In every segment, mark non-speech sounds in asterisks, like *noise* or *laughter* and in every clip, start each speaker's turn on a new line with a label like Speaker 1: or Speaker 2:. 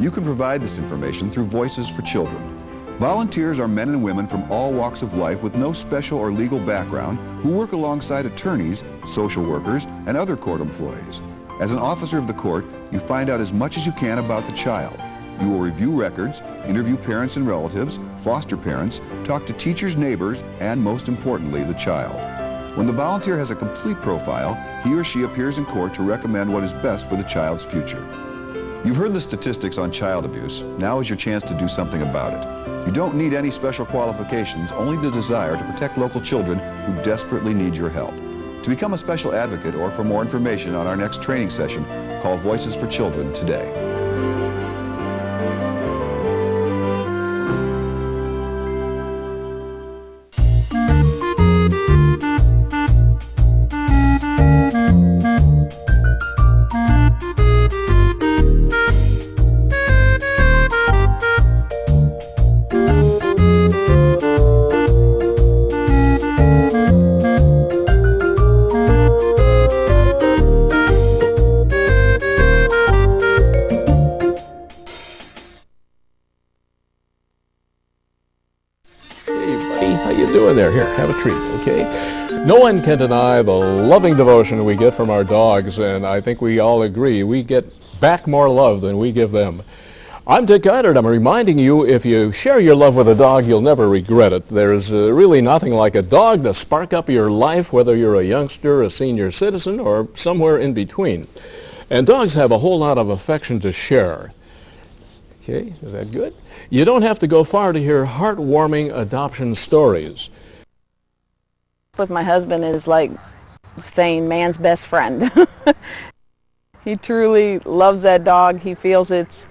Speaker 1: You can provide this information through Voices for Children. Volunteers are men and women from all walks of life with no special or legal background who work alongside attorneys, social workers, and other court employees. As an officer of the court, you find out as much as you can about the child. You will review records, interview parents and relatives, foster parents, talk to teachers, neighbors, and most importantly, the child. When the volunteer has a complete profile, he or she appears in court to recommend what is best for the child's future. You've heard the statistics on child abuse. Now is your chance to do something about it. You don't need any special qualifications, only the desire to protect local children who desperately need your help. To become a special advocate or for more information on our next training session, call Voices for Children today.
Speaker 2: Hey, buddy, how you doing there? Here, have a treat, okay? No one can deny the loving devotion we get from our dogs, and I think we all agree we get back more love than we give them. I'm Dick Goddard. I'm reminding you if you share your love with a dog, you'll never regret it. There's uh, really nothing like a dog to spark up your life, whether you're a youngster, a senior citizen, or somewhere in between. And dogs have a whole lot of affection to share. Okay, is that good? You don't have to go far to hear heartwarming adoption stories.
Speaker 3: with my husband is like saying man's best friend. *laughs* he truly loves that dog. He feels it's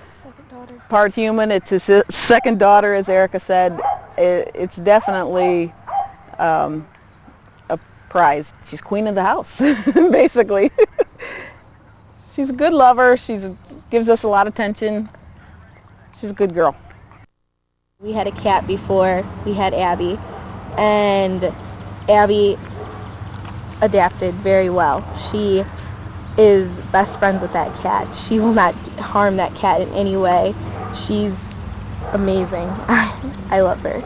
Speaker 3: part human. It's his si- second daughter, as Erica said. It, it's definitely um, a prize. She's queen of the house, *laughs* basically. *laughs* She's a good lover. She's gives us a lot of attention. She's a good girl.
Speaker 4: We had a cat before we had Abby, and Abby adapted very well. She is best friends with that cat. She will not harm that cat in any way. She's amazing. *laughs* I love her.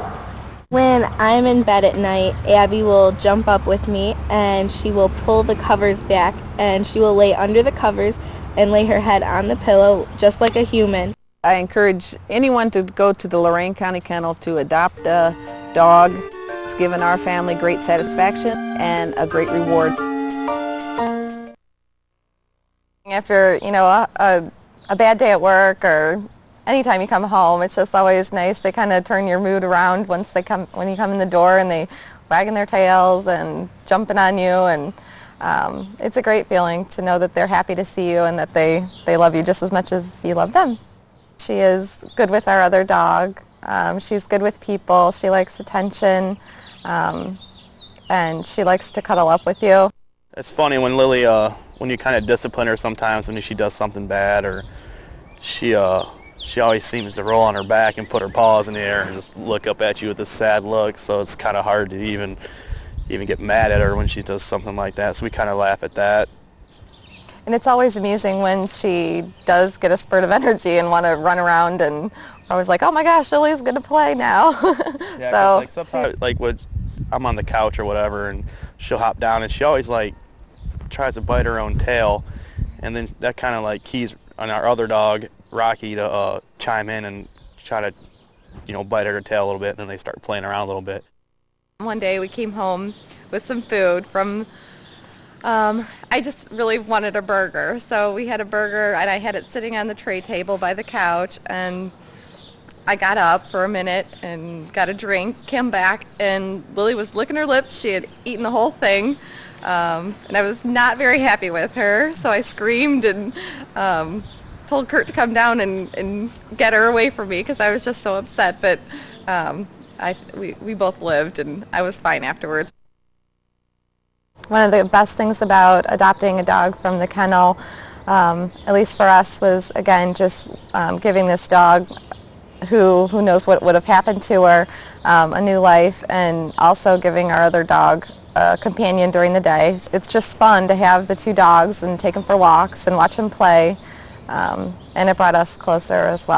Speaker 4: When I'm in bed at night, Abby will jump up with me and she will pull the covers back and she will lay under the covers and lay her head on the pillow just like a human.
Speaker 3: I encourage anyone to go to the Lorain County Kennel to adopt a dog. It's given our family great satisfaction and a great reward.
Speaker 5: after you know a, a, a bad day at work or anytime you come home it's just always nice they kind of turn your mood around once they come when you come in the door and they wagging their tails and jumping on you and um, it's a great feeling to know that they're happy to see you and that they, they love you just as much as you love them she is good with our other dog um, she's good with people she likes attention um, and she likes to cuddle up with you
Speaker 6: It's funny when Lily, uh, when you kind of discipline her sometimes when she does something bad or she, uh, she always seems to roll on her back and put her paws in the air and just look up at you with this sad look. So it's kind of hard to even, even get mad at her when she does something like that. So we kind of laugh at that.
Speaker 5: And it's always amusing when she does get a spurt of energy and want to run around and I was like, oh my gosh, Lily's going to play now. *laughs*
Speaker 6: Yeah, 'cause,
Speaker 5: so
Speaker 6: like sometimes, like when I'm on the couch or whatever, and she'll hop down, and she always like tries to bite her own tail, and then that kind of like keys on our other dog Rocky to uh, chime in and try to, you know, bite at her tail a little bit, and then they start playing around a little bit.
Speaker 5: one day we came home with some food from, um, I just really wanted a burger. So we had a burger and I had it sitting on the tray table by the couch and I got up for a minute and got a drink, came back, and Lily was licking her lips. She had eaten the whole thing, um, and I was not very happy with her. So I screamed and um, told Kurt to come down and, and get her away from me because I was just so upset. But um, I, we, we both lived, and I was fine afterwards. One of the best things about adopting a dog from the kennel, um, at least for us, was again just um, giving this dog who who knows what would have happened to her, um, a new life, and also giving our other dog a companion during the day. It's just fun to have the two dogs and take them for walks and watch them play, um, and it brought us closer as well.